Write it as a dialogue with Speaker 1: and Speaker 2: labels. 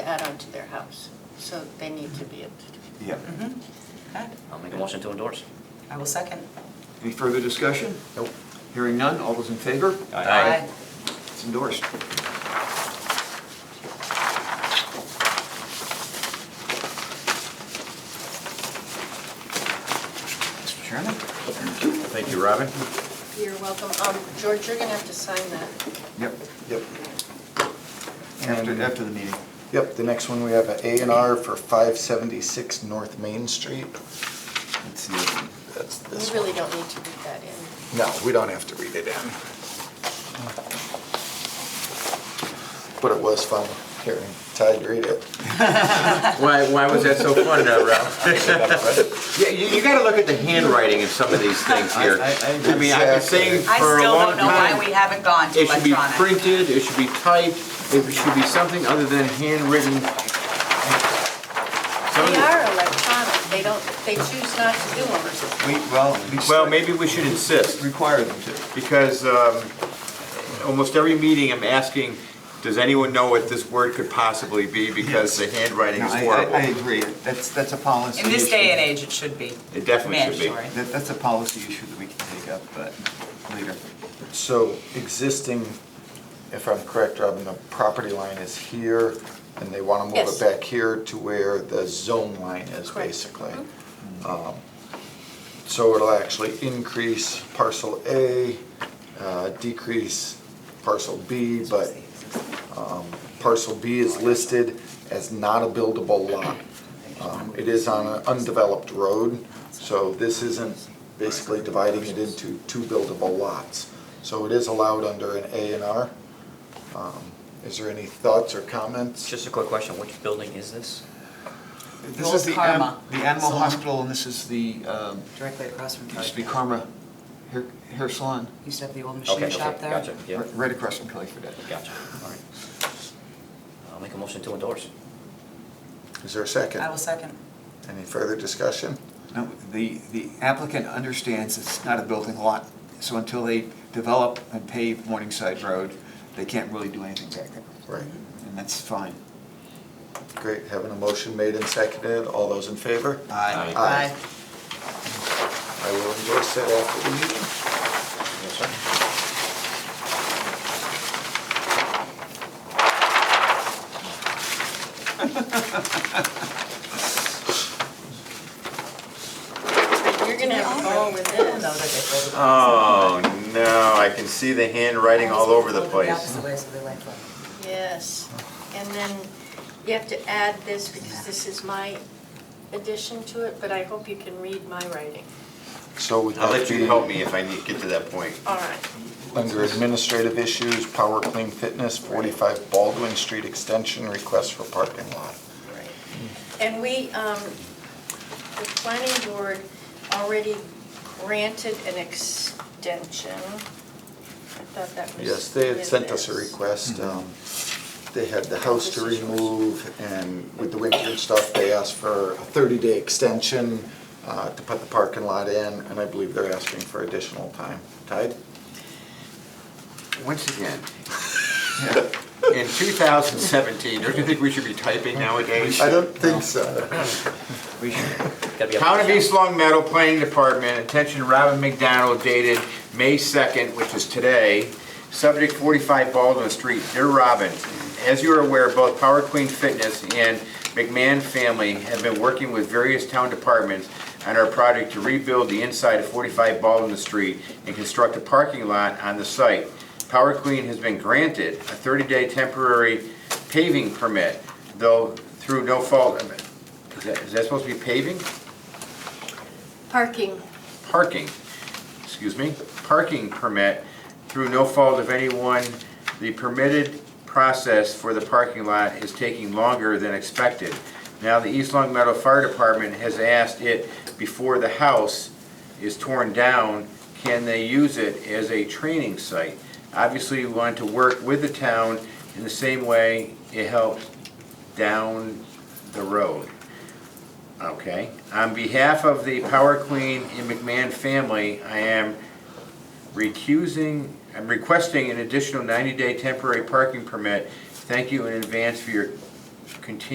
Speaker 1: that onto their house. So they need to be, able to-
Speaker 2: Yeah.
Speaker 3: Mhm. Okay.
Speaker 4: I'll make a motion to endorse.
Speaker 3: I will second.
Speaker 2: Any further discussion?
Speaker 4: Nope.
Speaker 2: Hearing none, all those in favor?
Speaker 4: Aye.
Speaker 2: It's endorsed. Mr. Chairman?
Speaker 5: Thank you, Robin.
Speaker 1: you're welcome. Um, George, you're gonna have to sign that.
Speaker 2: Yep,
Speaker 5: Yep.
Speaker 2: after,
Speaker 5: And-
Speaker 2: after the meeting.
Speaker 5: Yep, the next one, we have an A and R for 576 North Main Street.
Speaker 2: Let's see. if-
Speaker 5: That's this
Speaker 1: You
Speaker 5: one.
Speaker 1: really don't need to put that in.
Speaker 5: No, we don't have to read it in. But it was fun hearing Todd read it.
Speaker 6: Why, why was that so funny, now, Ralph? Yeah, you, you gotta look at the handwriting of some of these things here.
Speaker 2: I- I- I
Speaker 6: I mean, I've been saying
Speaker 3: I
Speaker 6: for a
Speaker 3: still
Speaker 6: long
Speaker 3: don't know why
Speaker 6: time,
Speaker 3: we haven't gone to
Speaker 6: it should be
Speaker 3: electronic.
Speaker 6: printed, it should be typed, it should be something other than handwritten. Some of
Speaker 1: They
Speaker 6: the-
Speaker 1: are electronic. They don't, they choose not to do them.
Speaker 2: We, well, we.
Speaker 6: Well, maybe we should insist.
Speaker 2: Require them to.
Speaker 6: because um, almost every meeting I'm asking, does anyone know what this word could possibly be? Because the handwriting
Speaker 2: No,
Speaker 6: is
Speaker 2: I, I I
Speaker 6: horrible.
Speaker 2: agree. That's, that's a policy
Speaker 3: In this
Speaker 2: issue.
Speaker 3: day and age, it should be
Speaker 6: It definitely should be.
Speaker 3: mandatory.
Speaker 2: That, that's a policy issue that we can take up, but later.
Speaker 5: So existing, if I'm correct, Robin, the property line is here, and they want to move
Speaker 1: Yes.
Speaker 5: it back here to where the zone line is,
Speaker 1: Correct. Mm-hmm.
Speaker 5: basically. Um, So it'll actually increase parcel A, uh, decrease parcel B, but um, parcel B is listed as not a buildable lot. Um, It is on an undeveloped road, so this isn't basically dividing it into two buildable lots. So it is allowed under an A and R. Um, Is there any thoughts or comments?
Speaker 4: Just a quick question, which building is this?
Speaker 2: This
Speaker 3: Old
Speaker 2: is the,
Speaker 3: Karma.
Speaker 2: an- the animal
Speaker 3: Salon.
Speaker 2: hospital, and this is the, um,
Speaker 3: Directly across from
Speaker 2: it used to be
Speaker 3: Target.
Speaker 2: Karma Hair- Hair Salon,
Speaker 3: Used to have the old
Speaker 4: Okay,
Speaker 3: machine
Speaker 4: okay,
Speaker 3: shop there.
Speaker 4: Gotcha, yeah,
Speaker 2: r- right across from Kelly Fredette.
Speaker 4: gotcha.
Speaker 2: All right.
Speaker 4: I'll make a motion to endorse.
Speaker 5: Is there a second?
Speaker 3: I will second.
Speaker 5: Any further discussion?
Speaker 2: No, the, the applicant understands it's not a building lot, so until they develop and pave Morningside Road, they can't really do anything back there,
Speaker 5: Right.
Speaker 2: and that's fine.
Speaker 5: Great, having a motion made and seconded, all those in favor?
Speaker 2: Aye.
Speaker 5: Aye. I will endorse that after the meeting.
Speaker 4: Yes, sir.
Speaker 1: You're gonna have to go with this.
Speaker 3: Know that they folded it.
Speaker 6: Oh, no, I can see the handwriting all over the
Speaker 3: Folded
Speaker 6: place.
Speaker 3: opposite way, so they like that.
Speaker 1: Yes, and then you have to add this, because this is my addition to it, but I hope you can read my writing.
Speaker 5: So would
Speaker 6: I'll
Speaker 5: that
Speaker 6: let
Speaker 5: be
Speaker 6: you help me if I need, get to that point.
Speaker 1: All right,
Speaker 5: under administrative issues, Power Clean Fitness, 45 Baldwin Street Extension, request for parking lot.
Speaker 1: right. And we, um, the planning board already granted an extension. I thought that was.
Speaker 5: Yes, they had
Speaker 1: in
Speaker 5: sent us a
Speaker 1: this.
Speaker 5: request. um, They had the house to remove, and with the winter and stuff, they asked for a 30-day extension uh, to put the parking lot in, and I believe they're asking for additional time. Tide?
Speaker 6: Once again, in 2017, don't you think we should be typing nowadays?
Speaker 5: I don't think so.
Speaker 6: We should.
Speaker 4: Gotta be up-
Speaker 6: Town of East Long Meadow Planning Department, attention Robin McDonald dated May 2nd, which is today, subject 45 Baldwin Street. Dear Robin, as you are aware, both Power Queen Fitness and McMahon Family have been working with various town departments on our project to rebuild the inside of 45 Baldwin Street and construct a parking lot on the site. Power Queen has been granted a 30-day temporary paving permit, though through no fault of it. Is that- Is that supposed to be paving?
Speaker 1: Parking,
Speaker 6: parking, excuse me, parking permit through no fault of anyone. The permitted process for the parking lot is taking longer than expected. Now, the East Long Meadow Fire Department has asked it before the house is torn down, can they use it as a training site? Obviously, we want to work with the town in the same way it helped down the road. Okay. On behalf of the Power Queen and McMahon family, I am recusing, I'm requesting an additional 90-day temporary parking permit. Thank you in advance for your continue